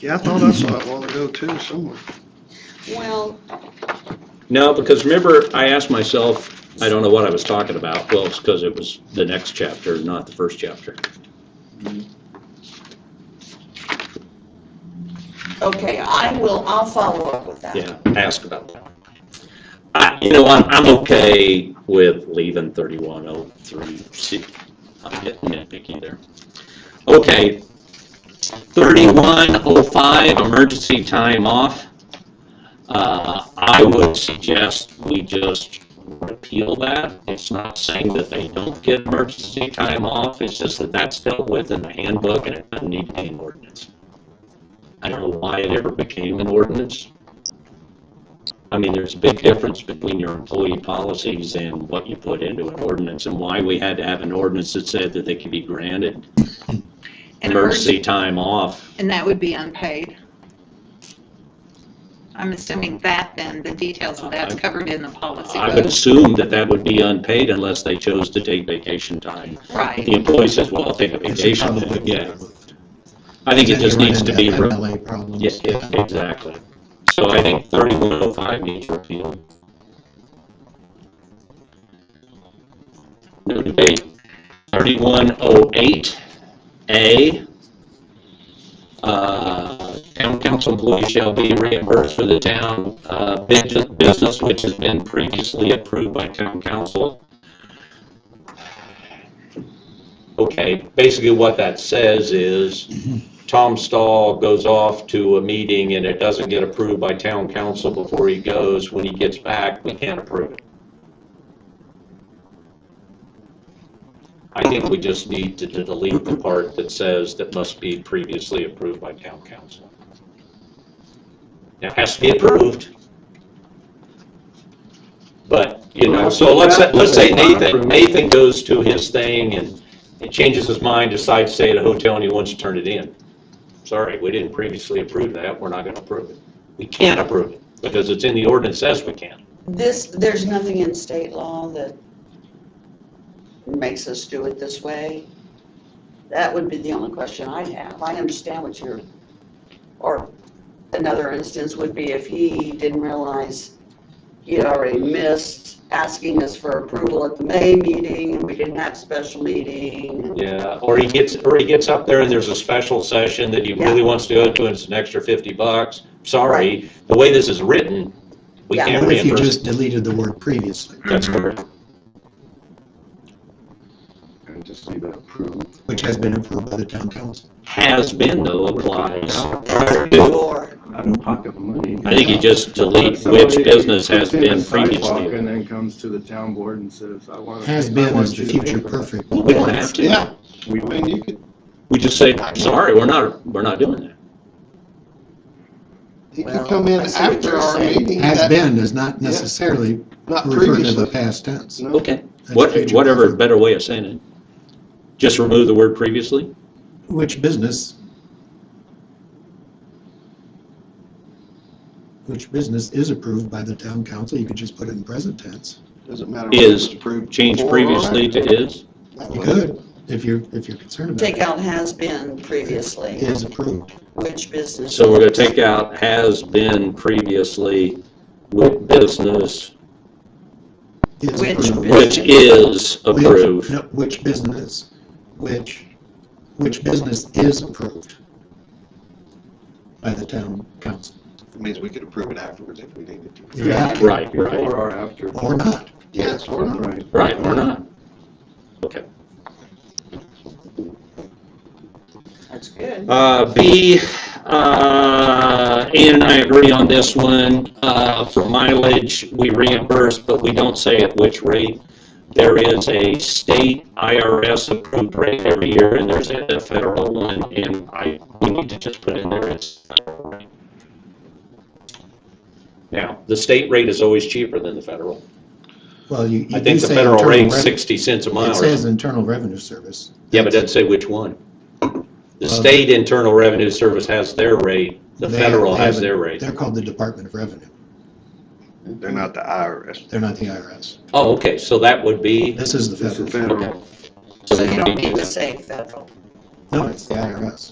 Yeah, I thought I saw it a while ago too, somewhere. Well, No, because remember, I asked myself, I don't know what I was talking about. Well, it's because it was the next chapter, not the first chapter. okay, I will, I'll follow up with that. Yeah, ask about that. I, you know, I'm, I'm okay with leaving thirty-one oh three C. I'm getting nitpicky there. Okay. Thirty-one oh five, emergency time off. Uh, I would suggest we just repeal that. It's not saying that they don't get emergency time off, it's just that that's dealt with in the handbook and it doesn't need to be an ordinance. I don't know why it ever became an ordinance. I mean, there's a big difference between your employee policies and what you put into an ordinance and why we had to have an ordinance that said that they could be granted And emergency time off. And that would be unpaid. I'm assuming that then, the details of that's covered in the policy. I would assume that that would be unpaid unless they chose to take vacation time. The Right, employee says, well, I'll take a It's vacation, probably then, yeah. I think it just You're needs to be, running into re- FMLA problems. yes, yes, exactly. So I think 3105 needs repealed. No debate. 3108A. Uh, Town council employees shall be reimbursed for the town uh, bus- business which has been previously approved by town council. Okay, basically what that says is Tom Stahl goes off to a meeting and it doesn't get approved by town council before he goes. When he gets back, we can't approve it. I think we just need to delete the part that says that must be previously approved by town council. Now, it has to be approved. But, you know, so let's, say- let's say Nathan, Nathan goes to his thing and it changes his mind, decides to stay at a hotel and he wants to turn it in. Sorry, we didn't previously approve that, we're not gonna approve it. We can't approve it, because it's in the ordinance says we can. This, there's nothing in state law that makes us do it this way. That would be the only question I have. I understand what you're, or another instance would be if he didn't realize he had already missed asking us for approval at the May meeting, and we didn't have special meeting. Yeah, or he gets, or he gets up there and there's a special session that he really wants to go to and it's an extra fifty bucks. Sorry, the way this is written, we Yeah. can't What if you reimburse. just deleted the word previously, That's correct. And just leave it approved. which has been approved by the town council? Has been though applies. Or, Out of pocket money. I think you just delete which business has been previously. And then comes to the town board and says, I want. Has been is the future perfect. We don't have to. Yeah, I mean, you could, We just say, sorry, we're not, we're not doing that. he could Well, come in I see what after you're our saying. meeting. Has that- been does not necessarily Not refer to the previously. past tense. No. Okay, That's what, future whatever perfect. better way of saying it. Just remove the word previously? Which business? Which business is approved by the town council? You could just put it in present tense. Doesn't matter. whether Is it's approved changed before or previously after. to is? That You was- could, if you're, if you're concerned about take it. out has been previously, Is approved. which business. So we're gonna take out has been previously with business, Is Which approved. business? which is Which- approved. no, Which business, which, which business is approved by the town council? It Means we could approve it afterwards if we needed to. Yeah, Right, right, Before or after. Or not. Yes, or not. Right. right, or not. Okay. That's good. Uh, B, uh, Ann and I agree on this one, uh, for mileage, we reimburse, but we don't say at which rate. There is a state IRS approved rate every year, and there's a federal one, and I, we need to just put in there it's. federal rate. Now, the state rate is always cheaper than the federal. Well, you, you I do think the say federal internal rate's rev- sixty cents a mile. or It something. says internal revenue service. Yeah, but it doesn't say which one. The Uh, state Internal Revenue Service has their rate, the They- federal they has have a- their rate. They're called the Department of Revenue. They're not the IRS. They're not the IRS. Oh, okay, so that would be, This is the This is federal. federal. okay. So you don't need to say federal. No, it's the IRS.